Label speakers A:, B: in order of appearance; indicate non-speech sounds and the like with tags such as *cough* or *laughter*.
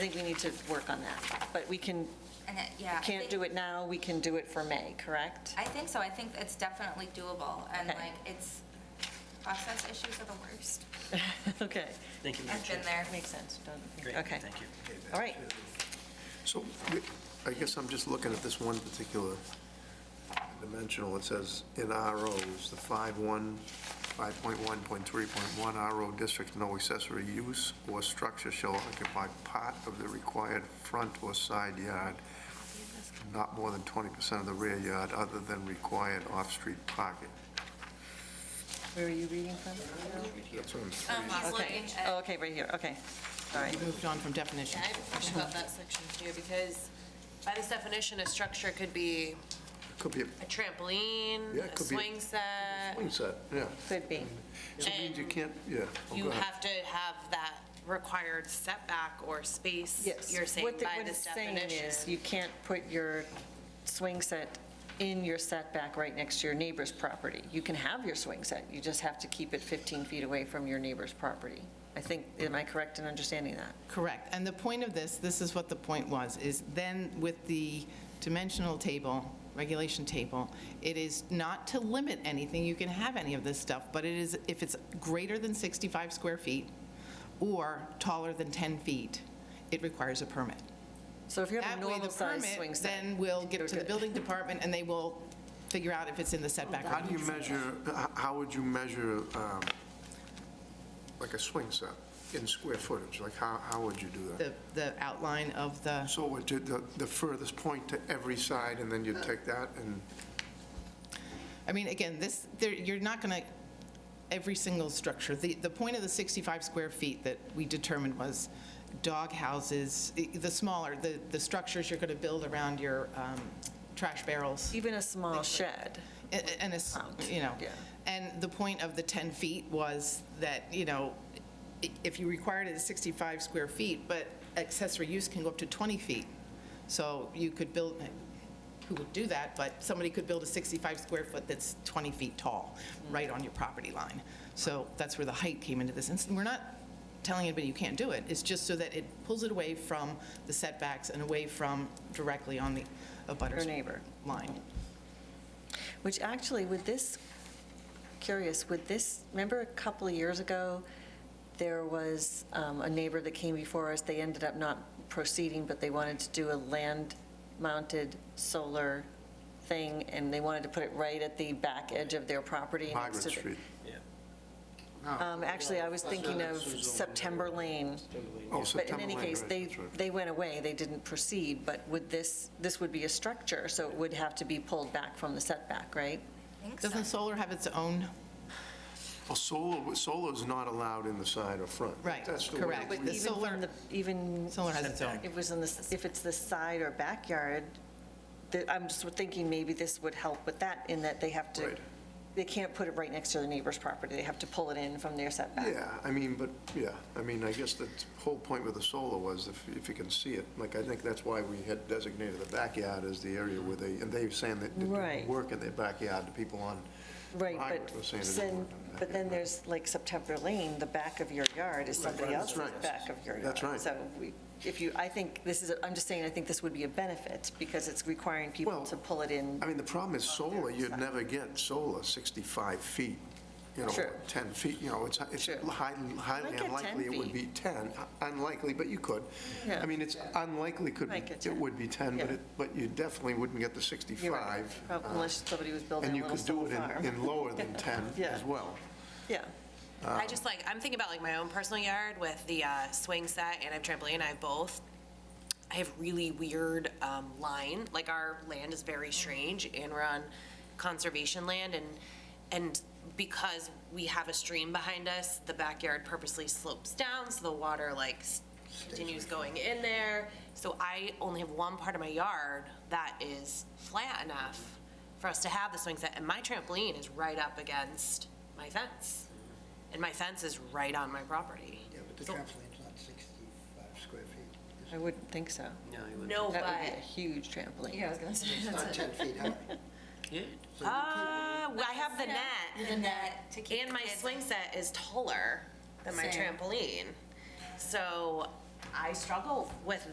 A: I think we need to work on that, but we can,
B: And it, yeah. I
A: can't
B: think-
A: do it now, we can do it for May, correct?
B: I think so. I think it's definitely doable. And
A: Okay.
B: like, it's, process issues are the worst.
A: *laughs* Okay,
C: Thank you, Madam
B: I've
C: Chair.
B: been there.
A: makes sense, don't,
C: Great,
A: okay,
C: thank you.
A: all right.
D: So I guess I'm just looking at this one particular dimensional. It says in ROs, the 5.1, 5.1.3.1 RO districts, no accessory use or structure shall occupy part of the required front or side yard, not more than 20% of the rear yard, other than required off-street parking.
A: Where are you reading from?
D: That's what I'm-
E: Um,
A: Okay,
E: he's looking
A: oh,
E: at,
A: okay, right here, okay, all right.
F: We moved on from definition.
E: I have a question about that section too, because by this definition, a structure could be
D: Could be, a
E: a trampoline,
D: Yeah, it
E: a
D: could be a-
E: swing set.
D: swing set, yeah.
A: Could be,
D: So it means you
E: And
D: can't, yeah. Oh,
E: You
D: go ahead.
E: have to have that required setback or space,
A: yes.
E: you're saying
A: What the-
E: by
A: what
E: this
A: it's saying is
E: definition.
A: You can't put your swing set in your setback right next to your neighbor's property. You can have your swing set, you just have to keep it 15 feet away from your neighbor's property. I think, am I correct in understanding that?
F: Correct. And the point of this, this is what the point was, is then with the dimensional table, regulation table, it is not to limit anything, you can have any of this stuff, but it is, if it's greater than 65 square feet or taller than 10 feet, it requires a permit.
A: So if you have
F: That
A: a
F: way, the
A: normal-sized swing
F: permit
A: set.
F: then will get to
A: you're
F: the
A: good.
F: building department, and they will figure out if it's in the setback
D: How
F: or
D: do you
F: not.
D: measure, h- how would you measure, um, like a swing set in square footage? Like, how, how would you do that?
F: The the outline of the,
D: So would you- the, the furthest point to every side, and then you'd take that and,
F: I mean, again, this, there- you're not going to, every single structure, the, the point of the 65 square feet that we determined was dog houses, i- the smaller, the, the structures you're going to build around your um, trash barrels,
A: Even a small shed.
F: a- a- and it's, you know.
A: Yeah.
F: And the point of the 10 feet was that, you know, i- if you required it at 65 square feet, but accessory use can go up to 20 feet. So you could build, who would do that, but somebody could build a 65 square foot that's 20 feet tall,
A: Mm.
F: right on your property line. So that's where the height came into this. And we're not telling anybody you can't do it, it's just so that it pulls it away from the setbacks and away from directly on the abutter's
A: Your neighbor.
F: line.
A: Which actually, with this, curious, with this, remember a couple of years ago, there was um, a neighbor that came before us, they ended up not proceeding, but they wanted to do a land-mounted solar thing, and they wanted to put it right at the back edge of their property. next
D: Margaret
A: to the-
D: Street?
A: Um, Actually, I was thinking of September Lane.
D: Oh,
A: But in
D: September
A: any
D: Lane,
A: case,
D: right,
A: they,
D: that's right.
A: they went away, they didn't proceed, but with this, this would be a structure, so it would have to be pulled back from the setback, right?
B: I think so.
F: Doesn't solar have its own?
D: Well, solar, solar's not allowed in the side or front.
F: Right,
D: That's the way
F: correct.
D: we-
F: But The
A: Even
F: solar-
A: from the, even,
F: Solar has its own.
A: it was in the, if it's the side or backyard, that- I'm just thinking maybe this would help with that, in that they have to,
D: Right.
A: they can't put it right next to the neighbor's property, they have to pull it in from their setback.
D: Yeah, I mean, but, yeah, I mean, I guess the whole point with the solar was if, if you can see it, like, I think that's why we had designated the backyard as the area where they, and they were saying that they
A: Right.
D: did work in their backyard, the people on
A: Right,
D: Margaret was saying
A: but
D: it didn't
A: then,
D: work in the
A: but then
D: backyard.
A: there's like September Lane, the back of your yard is somebody
D: that's
A: else's
D: right.
A: back of your yard.
D: That's right.
A: So we- if you, I think this is, I'm just saying, I think this would be a benefit because it's requiring people
D: Well,
A: to pull it in.
D: I mean, the problem is solar, you'd
A: side.
D: never get solar 65 feet, you know,
A: Sure.
D: 10 feet, you know, it's, it's
A: Sure.
D: highly highly
A: Might get 10
D: unlikely it would be 10, unlikely, but you could.
A: Yeah.
D: I mean, it's unlikely could,
A: Might get
D: be- it
A: 10.
D: would be 10, but
A: Yeah.
D: it, but you definitely wouldn't get the
A: You're right.
D: 65.
A: Prob-
D: uh,
A: Unless somebody was building a little solar farm.
D: And you could do it in- in lower
A: *laughs*
D: than 10
A: Yeah.
D: as well.
A: Yeah,
E: I just like, I'm thinking about like my own personal yard with the uh, swing set and I have trampoline, I have both. I have really weird um, line, like our land is very strange and we're on conservation land and, and because we have a stream behind us, the backyard purposely slopes down so the water like s- continues going in there. So I only have one part of my yard that is flat enough for us to have the swing set and my trampoline is right up against my fence. And my fence is right on my property.
G: Yeah, but the
E: So-
G: trampoline's not 65 square feet.
A: I wouldn't think so.
E: No,
A: That would be a
E: but,
A: huge trampoline.
B: I was gonna say.
E: *laughs*
G: It's not 10 feet high.
E: uh, I have the net,
B: The net to keep
E: and my
B: kids-
E: swing set is taller than my
B: Same.
E: trampoline. So I struggle with